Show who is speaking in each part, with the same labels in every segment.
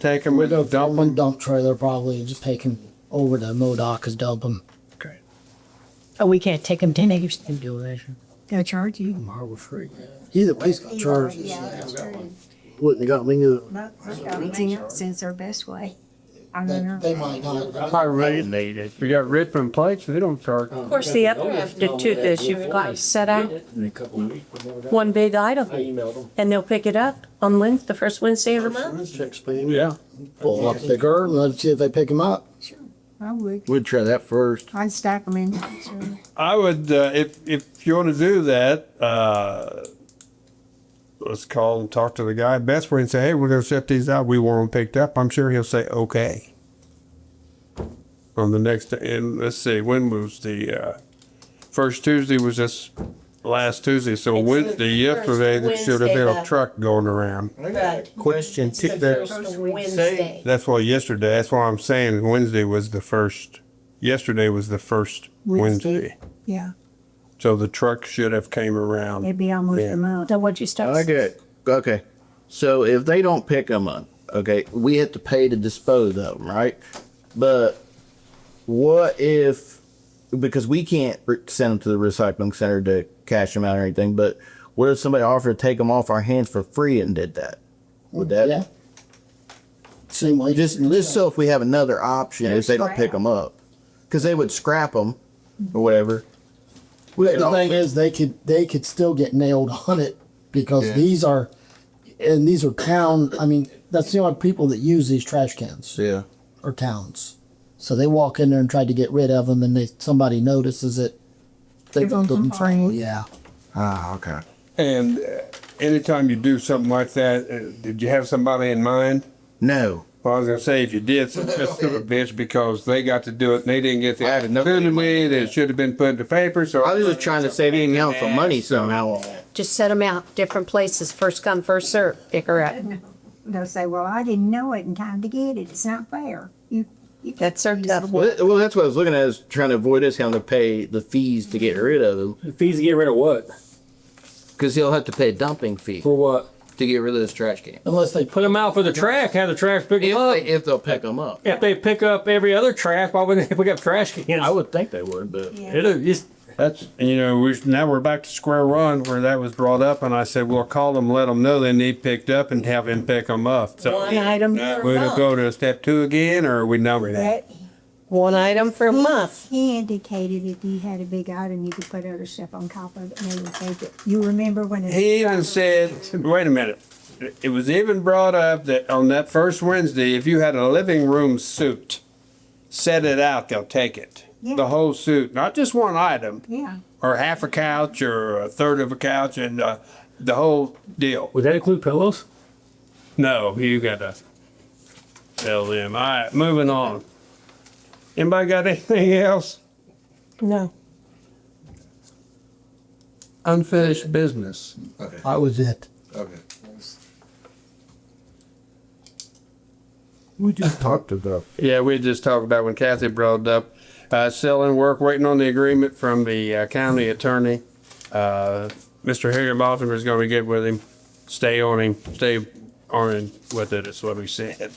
Speaker 1: Take him with us, dump
Speaker 2: One
Speaker 1: him.
Speaker 2: dump trailer probably just take him over to Modoc and dump him.
Speaker 1: Okay.
Speaker 3: Oh, we can't take him to Nation.
Speaker 2: Do that. shit.
Speaker 3: They'll charge you.
Speaker 4: Harbor Freight. Either place got charged.
Speaker 5: Yeah, that's true.
Speaker 4: Wouldn't have got me neither.
Speaker 5: But we got Manson's our best way. I don't
Speaker 2: They,
Speaker 5: know.
Speaker 2: they might not.
Speaker 1: We got Richmond plates, they don't charge.
Speaker 6: Of course, the uplifted too, this you've got set out one big item,
Speaker 7: emailed them.
Speaker 6: and they'll pick it up on Wednesday, the first Wednesday of the month.
Speaker 4: Checks clean.
Speaker 1: Yeah.
Speaker 2: Pull up the girl, let's see if they pick him up.
Speaker 5: I would.
Speaker 8: We'd try that first.
Speaker 5: I'd stack them in. Sure.
Speaker 1: I would, uh, if, if you wanna do that, uh, let's call and talk to the guy at Best Way and say, hey, we're gonna set these out, we want them picked up, I'm sure he'll say, okay. On the next, and let's see, when was the, uh, first Tuesday was this last Tuesday, so
Speaker 6: It's the
Speaker 1: Wednesday,
Speaker 6: first
Speaker 1: yesterday, there should have been
Speaker 6: Wednesday
Speaker 1: a
Speaker 6: of-
Speaker 1: truck going around.
Speaker 6: Right.
Speaker 7: Question, tick that,
Speaker 6: Wednesday.
Speaker 1: That's why yesterday, that's why I'm saying Wednesday was the first, yesterday was the first
Speaker 5: Wednesday.
Speaker 1: Wednesday.
Speaker 5: Yeah,
Speaker 1: So the truck should have came around.
Speaker 5: it'd be almost
Speaker 1: Yeah.
Speaker 5: a month.
Speaker 3: So what'd you start?
Speaker 8: Okay. Okay. So if they don't pick them up, okay, we have to pay to dispose of them, right? But what if, because we can't re- send them to the recycling center to cash them out or anything, but what if somebody offered to take them off our hands for free and did that? Would that
Speaker 2: Yeah. Same way.
Speaker 8: just just so if we have another option if they don't pick
Speaker 5: Scrap.
Speaker 8: them up, because they would scrap them or whatever. We
Speaker 2: The thing is, they could, they could still get nailed on it because
Speaker 8: Yeah.
Speaker 2: these are, and these are town, I mean, that's the only people that use these trash cans
Speaker 8: yeah.
Speaker 2: or towns. So they walk in there and try to get rid of them and they, somebody notices it. They,
Speaker 5: Give 'em some fine.
Speaker 2: yeah.
Speaker 8: Ah, okay.
Speaker 1: And uh, anytime you do something like that, uh, did you have somebody in mind?
Speaker 8: No.
Speaker 1: Well, I was gonna say, if you did, it's just a bitch because they got to do it and they didn't get the
Speaker 8: I had another-
Speaker 1: opportunity that it should have been put in the paper, so.
Speaker 8: I was just trying to save him out for money somehow. on that.
Speaker 6: Just set them out, different places, first come, first served, pick her up.
Speaker 5: They'll say, well, I didn't know it in time to get it. It's not fair. You, you.
Speaker 6: That's our tough
Speaker 8: Well, that- well, that's what I was looking at is trying to avoid us having to pay the fees to get rid of him
Speaker 7: the fees to get rid of what?
Speaker 8: because he'll have to pay a dumping fee
Speaker 7: For what?
Speaker 8: to get rid of this trash can.
Speaker 2: Unless they
Speaker 7: Put them out for the trash, have the trash pick them
Speaker 8: If,
Speaker 7: up.
Speaker 8: they, if they'll pick them up,
Speaker 7: If they pick up every other trash, why wouldn't they pick up trash cans?
Speaker 8: I would think they would, but
Speaker 5: Yeah.
Speaker 7: It'll just,
Speaker 1: That's, you know, we, now we're back to square one where that was brought up and I said, well, call them, let them know they need picked up and have them pick them up. So
Speaker 6: One item
Speaker 1: Now,
Speaker 6: per
Speaker 1: we gonna
Speaker 6: month.
Speaker 1: go to step two again or are we number that?
Speaker 5: But
Speaker 6: One item for a month.
Speaker 5: he indicated if you had a big item, you could put other stuff on top of it and they would take it. You remember when it?
Speaker 1: He even said, wait a minute. It was even brought up that on that first Wednesday, if you had a living room suit, set it out, they'll take it.
Speaker 5: Yeah.
Speaker 1: The whole suit, not just one item,
Speaker 5: Yeah,
Speaker 1: or half a couch, or a third of a couch, and uh, the whole deal.
Speaker 7: would that include pillows?
Speaker 1: No, you gotta tell them. All right, moving on. Anybody got anything else?
Speaker 6: No.
Speaker 1: Unfinished business.
Speaker 2: That was it.
Speaker 8: okay.
Speaker 7: We just
Speaker 8: Talk to the
Speaker 1: Yeah, we just talked about when Kathy brought it up, uh, selling work, waiting on the agreement from the uh, county attorney. Uh, Mr. Harry Baltimore is gonna be good with him. Stay on him, stay on him with it, is what we said.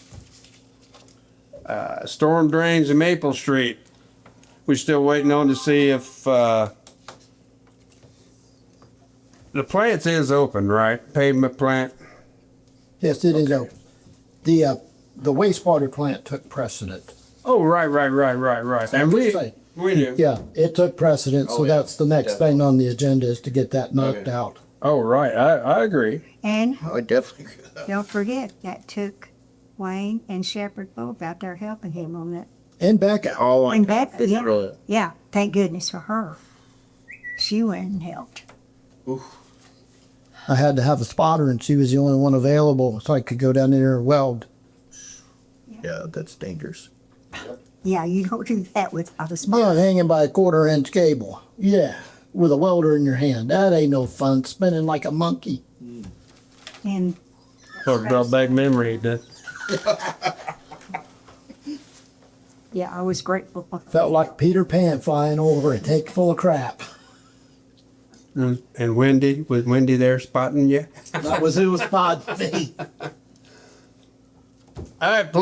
Speaker 1: Uh, storm drains in Maple Street. We're still waiting on to see if, uh, the plant is open, right? Pavement plant?
Speaker 2: Yes, it is open. The, uh, the wastewater plant took precedent.
Speaker 1: Oh, right, right, right, right, right. And we,
Speaker 2: Say,
Speaker 1: we knew.
Speaker 2: Yeah, it took precedent,
Speaker 8: Oh,
Speaker 2: so
Speaker 8: yeah.
Speaker 2: that's the next thing on the agenda is to get that knocked
Speaker 8: Okay.
Speaker 2: out.
Speaker 1: Oh, right, I, I agree.
Speaker 5: and
Speaker 8: I would definitely.
Speaker 5: don't forget, that took Wayne and Shepherd both out there helping him on that.
Speaker 2: And back out.
Speaker 8: All on
Speaker 5: And back, yeah,
Speaker 8: Really.
Speaker 5: yeah, thank goodness for her. She went and helped.
Speaker 2: I had to have a spotter and she was the only one available, so I could go down in there and weld.
Speaker 8: Yeah, that's dangerous.
Speaker 5: Yeah, you don't do that without a
Speaker 2: Yeah,
Speaker 5: smile.
Speaker 2: hanging by a quarter inch cable. Yeah, with a welder in your hand. That ain't no fun, spinning like a monkey.
Speaker 5: And
Speaker 1: Sort of brought back memory. doesn't it?
Speaker 5: yeah, I was grateful.
Speaker 2: Felt like Peter Pan flying over a tank full of crap.
Speaker 1: And, and Wendy, was Wendy there spotting you?
Speaker 2: That was who was spotting me.
Speaker 1: All right, please.